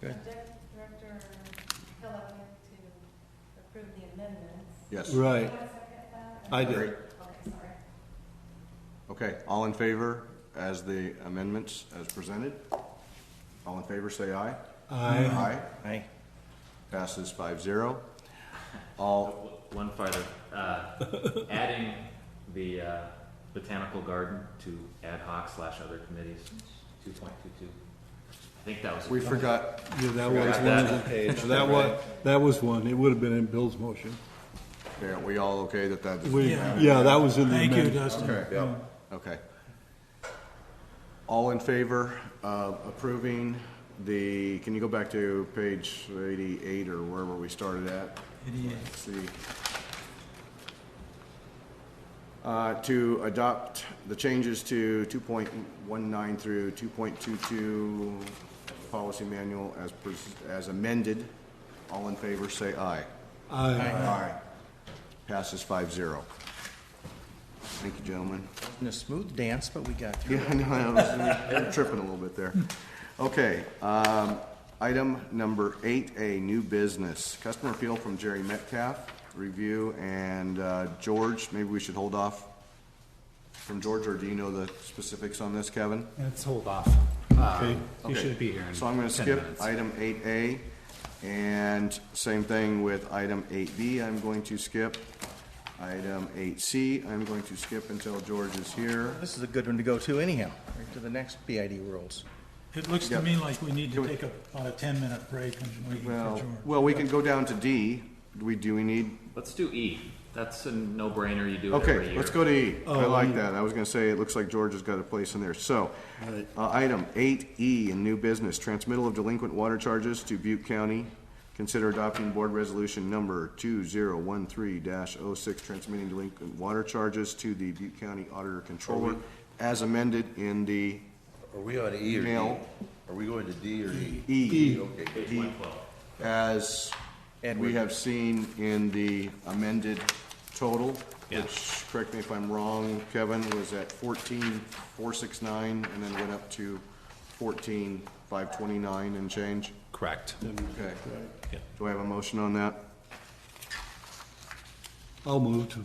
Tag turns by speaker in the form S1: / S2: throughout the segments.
S1: Good.
S2: Director Hillock to approve the amendments.
S3: Yes.
S2: Do
S4: Right,
S2: you want to second that?
S4: I
S3: Great.
S4: did.
S2: Okay, sorry.
S3: Okay, all in favor as the amendments as presented? All in favor, say aye.
S4: I,
S1: Aye.
S3: Passes five zero. All,
S5: W- One farther, uh, adding the uh, botanical garden to ad hoc slash other committees, two point two two. I think that was.
S3: we forgot,
S4: yeah, that
S3: Forgot
S4: was one
S5: that
S4: of the,
S1: page.
S4: that was, that was one. It would have been in Bill's motion.
S3: okay, are we all okay that that?
S4: We,
S6: Yeah.
S4: yeah, that was in the
S6: Thank you,
S4: amendment.
S6: Dustin.
S3: Okay, okay. All in favor of approving the, can you go back to page eighty-eight or wherever we started at? Let's see. Uh, to adopt the changes to two point one nine through two point two two policy manual as, pres- as amended. All in favor, say aye.
S4: I,
S3: Aye. Passes five zero. Thank you, gentlemen.
S1: In a smooth dance, but we got through.
S3: Yeah, I know, I was I'm tripping a little bit there. Okay, um, item number eight A, new business. Customer appeal from Jerry Metcalf, review, and, uh, George, maybe we should hold off from George, or do you know the specifics on this, Kevin?
S7: Let's hold off.
S3: Uh,
S4: okay.
S7: You
S3: Okay.
S7: should be here in
S3: So I'm gonna
S7: 10
S3: skip
S7: minutes.
S3: item eight A, and same thing with item eight B, I'm going to skip. Item eight C, I'm going to skip until George is here.
S1: This is a good one to go to anyhow, right to the next BID rules.
S6: It looks to me like we need
S3: Can
S6: to
S3: we-
S6: take a- about a 10-minute break and wait for
S3: Well,
S6: George.
S3: well, we can go down to D. Do we, do we need,
S5: Let's do E. That's a no-brainer. You do it every
S3: okay,
S5: year.
S3: let's go to E. I like that. I was gonna say, it looks like George has got a place in there. So, uh, item eight E in new business, transmittal of delinquent water charges to Butte County. Consider adopting board resolution number two zero one three 6 transmitting delinquent water charges to the Butte County Auditor Controller as amended in the
S8: Are we on E or D?
S3: Email.
S8: Are we going to D or E?
S3: E.
S8: Okay.
S5: Page one twelve.
S3: as we
S1: Edward.
S3: have seen in the amended total, which, correct me if I'm wrong, Kevin, was at fourteen, four six nine, and then went up to fourteen, five twenty-nine and change?
S7: Correct.
S3: Okay. Do I have a motion on that?
S4: I'll move to,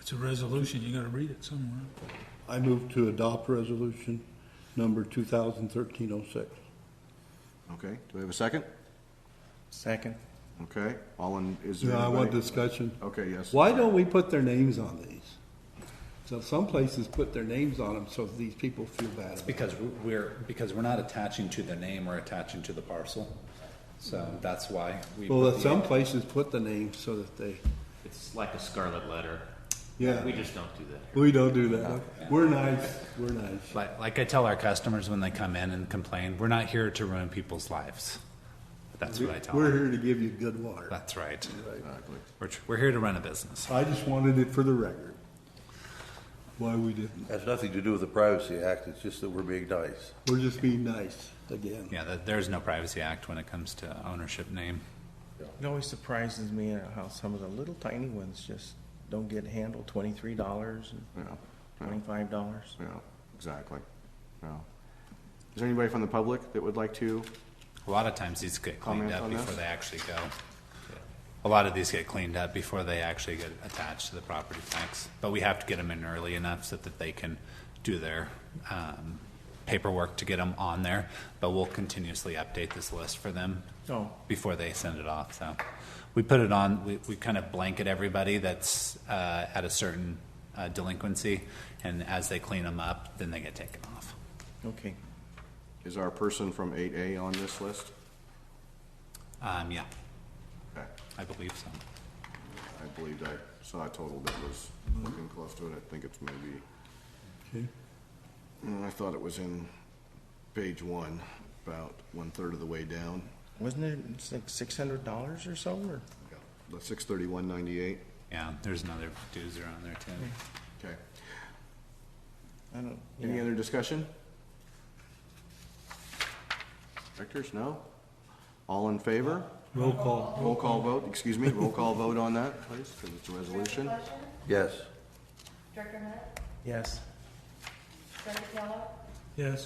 S6: It's a resolution, you gotta read it somewhere.
S4: I move to adopt resolution number two thousand thirteen oh six.
S3: Okay, do I have a second?
S1: Second.
S3: Okay, all in, is there
S4: Yeah, I want
S3: anybody?
S4: discussion.
S3: Okay, yes.
S4: Why don't we put their names on these? So some places put their names on them so these people feel bad about it.
S7: Because we're, because we're not attaching to the name, we're attaching to the parcel. So that's why. we
S4: Well,
S7: put
S4: that
S7: the-
S4: some places put the names so that they,
S5: It's like a scarlet letter.
S4: Yeah.
S5: We just don't do that.
S4: we don't do that. We're nice, we're nice.
S7: Like, like I tell our customers when they come in and complain, we're not here to ruin people's lives. That's what I tell
S4: We're
S7: them.
S4: here to give you good water.
S7: That's right. We're, tr- we're here to run a business.
S4: I just wanted it for the record. Why we didn't.
S8: Has nothing to do with the Privacy Act, it's just that we're being nice.
S4: We're just being nice again.
S7: Yeah, there- there's no Privacy Act when it comes to ownership name.
S1: It always surprises me uh, how some of the little tiny ones just don't get handled, twenty-three dollars
S3: Yeah,
S1: and twenty-five dollars.
S3: yeah, exactly, yeah. Is there anybody from the public that would like to?
S7: A lot of times these get cleaned
S3: Comment
S7: up
S3: on
S7: before
S3: this?
S7: they actually go. A lot of these get cleaned up before they actually get attached to the property tax, but we have to get them in early enough so that they can do their um, paperwork to get them on there. But we'll continuously update this list for them
S1: Oh.
S7: before they send it off. So we put it on. We, we kind of blanket everybody that's uh, at a certain uh, delinquency, and as they clean them up, then they get taken off.
S1: Okay.
S3: Is our person from eight A on this list?
S7: Um, yeah,
S3: Okay.
S7: I believe so.
S3: I believed I saw a total that was looking close to it, I think it's maybe,
S4: Okay.
S3: Mm, I thought it was in page one, about one-third of the way down.
S1: Wasn't it it's like six hundred dollars or so, or?
S3: The six thirty-one ninety-eight,
S7: Yeah, there's another doozer on there too.
S3: okay.
S1: I don't,
S3: Any
S1: yeah.
S3: other discussion? Directors, no? All in favor?
S4: Roll call.
S3: Roll call vote, excuse me, roll call vote on that, please, because it's a resolution.
S2: Director Fleischer?
S8: Yes.
S2: Director Hunt?
S1: Yes.
S2: Director Kellogg?
S6: Yes?